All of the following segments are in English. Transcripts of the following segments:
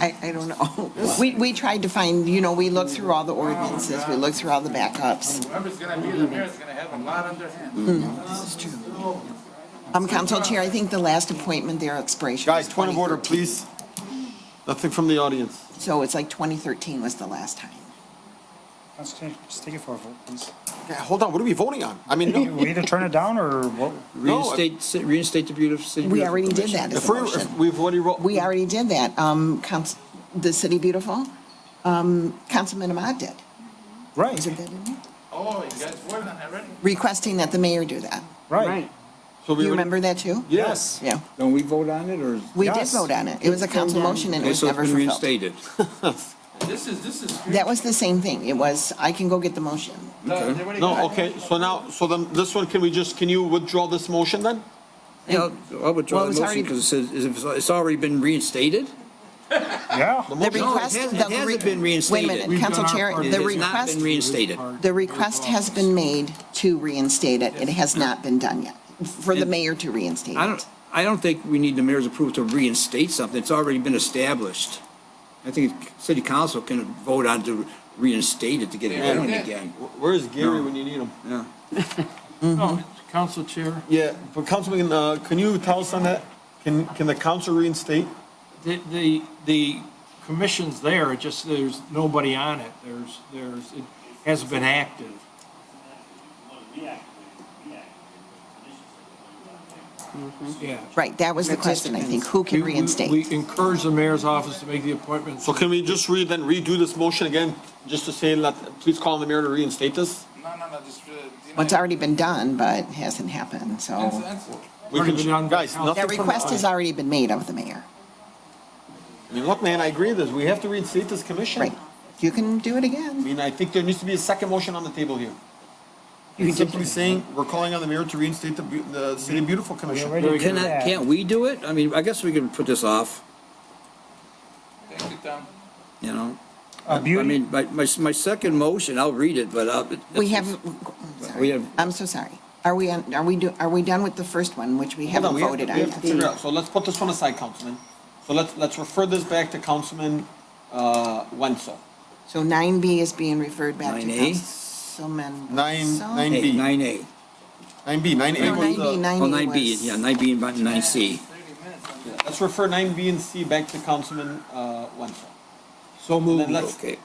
I don't know. We, we tried to find, you know, we looked through all the ordinances, we looked through all the backups. Whoever's gonna be the mayor is gonna have a lot on their hands. Um, Council Chair, I think the last appointment, their expiration. was Guys, point of order, 2013. please. Nothing from the audience. So it's like 2013 was the last time. Let's take, just take it for a vote, please. Yeah, Hold on, what are we voting on? I mean, We no. either turn it down or what? No, I- Reinstate, ci- reinstate the beautiful city. We beautiful already did commission. that as If a we, if motion. we've already. ro- We already did that. Um, Council, the City Beautiful, um, Councilman Ahmad did. Right, Isn't that in there? Oh, you guys voted on that already? Requesting that the mayor do that. right. so we You already- remember that too? Yes. Yeah. Don't we vote on it, or? is- We did Yes. vote on it. It was a council motion and it Okay, was so it's never been fulfilled. reinstated. This is, this is. That was the same thing. It was, I can go get the motion. No, okay, so now, so then this one, can we just, can you withdraw this motion then? Yeah, I'll- I'll withdraw Well, it was the motion already- because it says, it's- it's already been reinstated? Yeah. The No, it request. hasn't- the it hasn't re- been reinstated. Wait a minute, We've Council Chair, It the has not been request, reinstated. the request has been made to reinstate it. It has not been done yet, for the And- mayor to reinstate I don't, it. I don't think we need the mayor's approval to reinstate something, it's already been established. I think city council can vote on to reinstate it to get it Yeah. going again. Wh- Where's Gary when you need him? Council Chair, Yeah, but Councilman, uh, can you tell us on that? Can, can the council reinstate? the, the, the commission's there, it just there's nobody on it. There's, there's, it hasn't been active. Yeah. Right, that was the question, I think. Who We- Mm-hmm. can we- reinstate? We encourage the mayor's office to make the appointments. So can we just re, then redo this motion again, just to say, let, please call on the mayor to reinstate this? No, no, no, just. uh, deny Well, it's it. already been done, but hasn't happened, That's- so. that's- We Already can, been done by guys, council. nothing That from the request has audience. already been made of the mayor, I mean, look, man, I agree with this, we have to reinstate this commission. right? You can do it I again. mean, I think there needs to be a second motion on the table here. It's Simply saying, we're calling on the mayor to reinstate the, beau- the City Beautiful Commission. already Very Can good. I, Yeah. can't we do it? I mean, I guess we can put this off, Thank you, Tom. you know? A I beauty, mean, my, my, my second motion, I'll read it, but I'll. We have, sorry. We have- I'm so sorry. Are we, on- are we, do? are we done with the first one, which we Hold haven't on, we have to- voted on we have to yet? figure out. So let's put this one aside, Councilman. So let's, let's refer this back to Councilman, uh, Wenzel. So nine B is being referred back to 9A? Councilman. Nine- Wenzel? nine- Hey, B. nine A, Nine B, nine A No, was, nine B, uh, well, nine A Oh, nine B, was. yeah, nine B and nine C. Thirty minutes. on that. let's refer nine B and C back to Councilman, uh, Wenzel. So moved. Okay,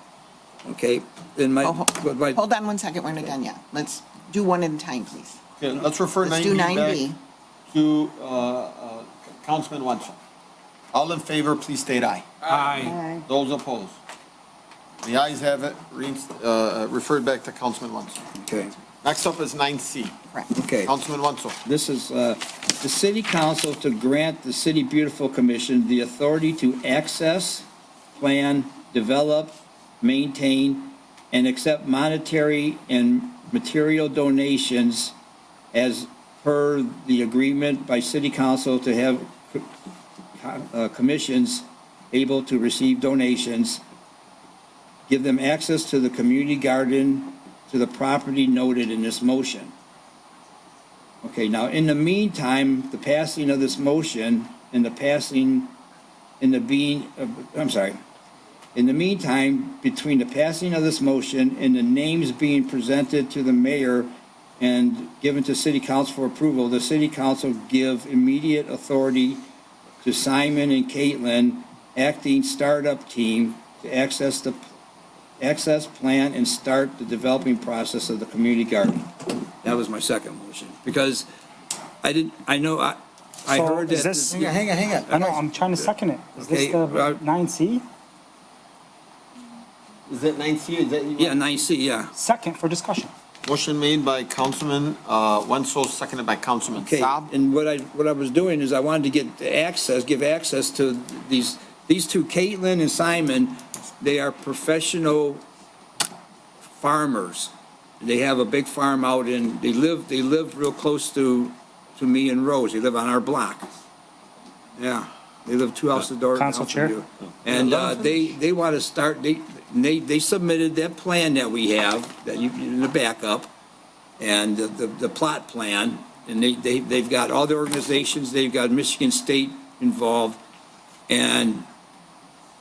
okay, then my, Oh, ho- but my, Hold on one second, we're not done yet. Let's do one at a time, please. Okay, let's refer Let's nine do B nine back B. to, uh, uh, Councilman Wenzel. All in favor, please state aye. uh, Aye. Those opposed? The ayes have it, reinst, uh, referred back to Councilman Wenzel. okay, Next up is nine C. Correct. okay. Councilman Wenzel. This is, uh, the city council to grant the City Beautiful Commission the authority to access, plan, develop, maintain, and accept monetary and material donations as per the agreement by city council to have uh, commissions able to receive donations, give them access to the community garden, to the property noted in this motion. Okay, now, in the meantime, the passing of this motion and the passing, in the being, of- I'm sorry. In the meantime, between the passing of this motion and the names being presented to the mayor and given to city council for approval, the city council give immediate authority to Simon and Caitlin, acting startup team, to access the, access, plan, and start the developing process of the community garden. That was my second motion, because I didn't, I know, I, I So heard that. is this- Hang on, hang on, hang on. I know, I'm trying to second it. Is this Okay, the uh, nine C? Is that nine C, is that you? Yeah, nine C, yeah. Second for discussion. Motion made by Councilman uh, Wenzel, seconded by Councilman Okay, Saab. and what I, what I was doing is I wanted to get the access, give access to these, these two, Caitlin and Simon, they are professional farmers. They have a big farm out in, they live, they live real close to, to me and Rose, they live on our block. Yeah, they live two houses door down Council from Chair? you. And uh, they, they want to start, they, they, they submitted that plan that we have, that you, in the backup, and the, the- the plot plan, and they, they, they've got all the organizations, they've got Michigan State involved, and